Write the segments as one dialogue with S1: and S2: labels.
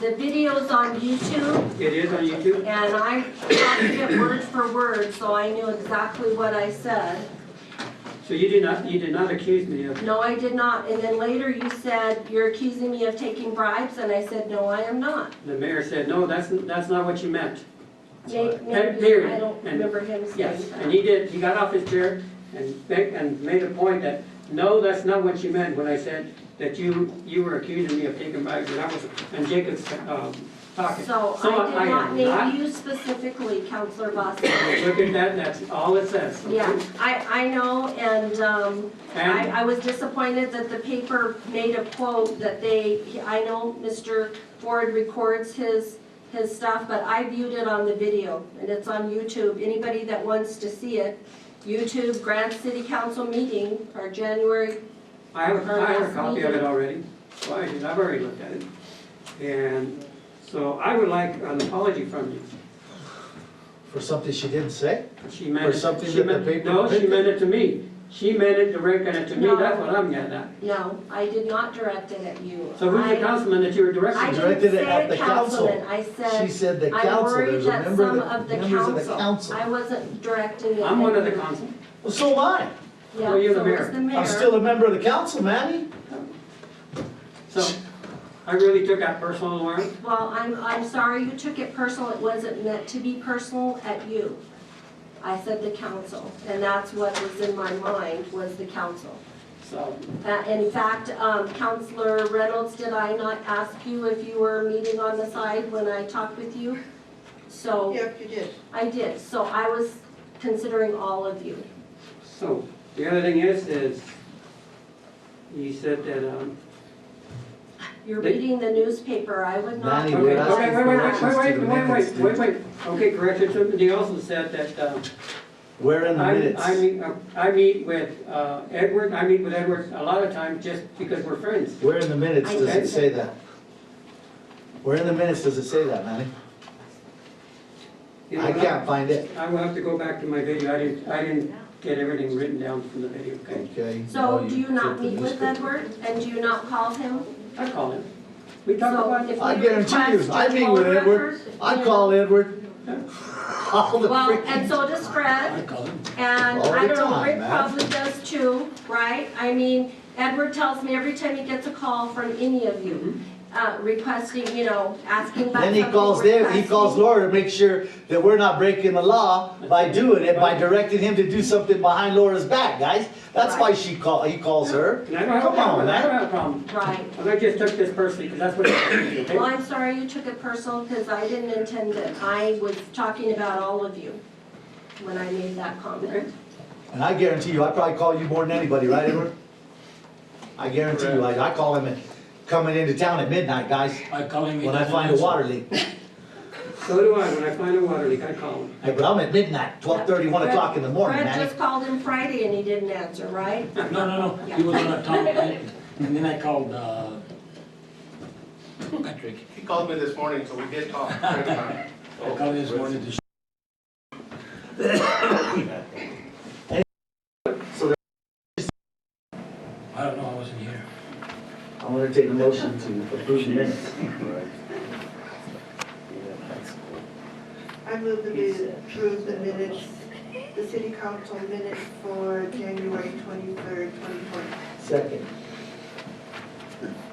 S1: The video's on YouTube,
S2: It is on YouTube?
S1: and I copied it word for word, so I knew exactly what I said.
S2: So you did not, you did not accuse me of,
S1: No, I did not, and then later you said, you're accusing me of taking bribes, and I said, no, I am not.
S2: the mayor said, no, that's, that's not what you meant.
S1: May-
S2: Period.
S1: Maybe, I don't
S2: And-
S1: remember him saying
S2: Yes, and
S1: that.
S2: he did, he got off his chair and made, and made a point that, no, that's not what you meant when I said that you, you were accusing me of taking bribes, and I was, and Jacob's, um, talking.
S1: So
S2: I
S1: I
S2: am
S1: did not name you specifically, Counselor Voskowitz.
S2: Look at that, that's all it says. okay?
S1: Yeah, I, I know, and, um, I,
S2: And
S1: I was disappointed that the paper made a quote that they, I know Mr. Ford records his, his stuff, but I viewed it on the video, and it's on YouTube. Anybody that wants to see it, YouTube Grant City Council meeting, our January,
S2: I have, I have a
S1: Last
S2: copy of it
S1: meeting.
S2: already, so I did, I've already looked at it. And so I would like an apology from you.
S3: For something she didn't say?
S2: She meant,
S3: Or something
S2: she
S3: that the
S2: meant,
S3: paper
S2: no, she
S3: printed?
S2: meant it to me. She meant it, directed it to me,
S1: No.
S2: that's what I'm getting at.
S1: no, I did not direct it at you.
S2: So who's the
S1: I-
S2: councilman that you were
S1: I
S2: directing? to?
S1: didn't
S3: Directed it
S1: say
S3: at
S1: a
S3: the council.
S1: councilman, I said,
S3: She said the
S1: I'm
S3: council,
S1: worried
S3: there's a
S1: that
S3: member
S1: some
S3: of
S1: of
S3: the,
S1: the
S3: members of the
S1: council,
S3: council.
S1: I wasn't directing it.
S2: I'm one
S1: at
S2: of the
S1: you.
S2: council.
S3: Well, so am I.
S1: Yeah,
S2: Well, you're the
S1: so
S2: mayor.
S1: was the
S3: I'm still
S1: mayor.
S3: a member of the council, Manny.
S2: So I really took that personal, Lauren.
S1: Well, I'm, I'm sorry you took it personal, it wasn't meant to be personal at you. I said the council, and that's what was in my mind, was the council.
S2: So,
S1: Uh, In fact, um, Counselor Reynolds, did I not ask you if you were meeting on the side when I talked with you? So,
S4: Yep, you did.
S1: I did, so I was considering all of you.
S2: so the other thing is, is you said that, um,
S1: You're
S2: They-
S1: reading the newspaper, I would not.
S3: Manny,
S2: okay,
S3: we're
S2: okay,
S3: asking
S2: wait, wait, wait,
S3: corrections to
S2: wait, wait,
S3: the minutes,
S2: wait, wait,
S3: dude.
S2: wait. Okay, correction, somebody also said that, um,
S3: We're in the
S2: I, I
S3: minutes.
S2: meet, uh, I meet with uh, Edward, I meet with Edward a lot of times just because we're friends.
S3: We're in the minutes, does
S2: Okay.
S3: it say that? We're in the minutes, does it say that, Manny?
S2: You know,
S3: I can't find it.
S2: I will have to go back to my video, I didn't, I didn't get everything written down from the video, okay?
S3: Okay.
S1: So
S3: well,
S1: do you not
S3: took the
S1: meet with
S3: newspaper.
S1: Edward, and do you not call him?
S2: I call him. We talk
S1: So
S2: about,
S1: if
S3: I
S1: we
S3: guarantee you,
S1: request
S3: I
S1: your
S3: meet
S1: poll
S3: with Edward,
S1: records,
S3: I
S1: you
S3: call
S1: know-
S3: Edward. All the
S1: Well,
S3: freaking.
S1: and so does
S3: I
S1: Fred,
S3: call him.
S1: and
S3: All
S1: I
S3: the
S1: don't know,
S3: time,
S1: Rick
S3: man.
S1: probably does too, right? I mean, Edward tells me every time he gets a call from any of you, uh, requesting, you know, asking about
S3: Mm-hmm. Then he
S1: something,
S3: calls Dave, he
S1: requesting-
S3: calls Laura to make sure that we're not breaking the law by doing it, by
S2: Right.
S3: directing him to do something behind Laura's back, guys. That's why she call, he calls her.
S2: and I don't have a
S3: Come on,
S2: problem, I
S3: man.
S2: don't have a problem.
S1: Right.
S2: And I just took this personally, because that's what it is,
S1: Well,
S2: okay?
S1: I'm sorry you took it personal, because I didn't intend it. I was talking about all of you when I made that
S2: Okay.
S1: comment.
S3: And I guarantee you, I probably call you more than anybody, right, Edward? I guarantee you, I, I call him at, coming into town at midnight, guys,
S5: I call him. he
S3: when I
S5: doesn't
S3: find a
S5: answer.
S3: water leak. Yeah,
S2: So do I, when I find a water leak, I call him.
S3: but I'm at midnight, twelve thirty, one o'clock in the morning,
S1: Fred
S3: man.
S1: just called him Friday and he didn't answer, right?
S5: No, no, no, he was on a top, and then I called, uh, Patrick,
S6: He called me this morning, so we did talk.
S5: I called this morning to
S3: So
S5: I don't know, I wasn't here.
S3: I'm gonna take a motion to approve the minutes.
S4: I move that we approve the minutes, the city council minutes for January twenty-third, twenty twenty.
S3: Second.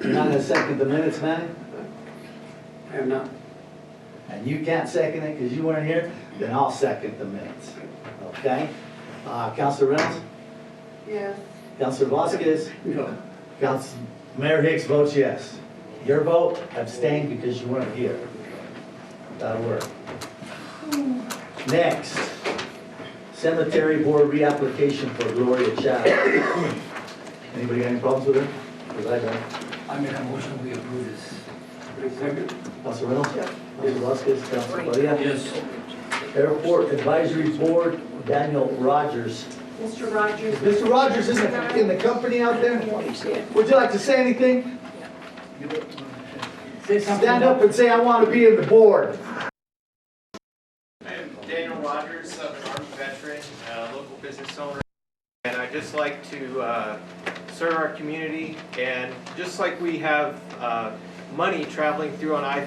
S3: You're not gonna second the minutes, Manny?
S2: I am not.
S3: and you can't second it because you weren't here, then I'll second the minutes, okay? Uh, Counselor Reynolds,
S4: Yes,
S3: Counselor Vasquez,
S2: No.
S3: Council, Mayor Hicks votes yes. Your vote abstained because you weren't here. That'll work. Next, Cemetery Board reapplication for Gloria Chadwick. Anybody got any problems with her? Because I don't.
S5: I made a motion, we approve this.
S2: I second.
S3: Counselor Reynolds,
S4: Yeah.
S3: Counselor Vasquez, Counselor Padilla.
S5: Yes.
S3: Airport Advisory Board, Daniel Rogers.
S1: Mr. Rogers.
S3: Mr. Rogers isn't in the company out there? Would you like to say anything?
S5: Say something.
S3: Stand up and say, I want to be in the board.
S6: I'm Daniel Rogers, I'm an Army veteran, uh, local business owner, and I just like to uh, serve our community, and just like we have uh, money traveling through on I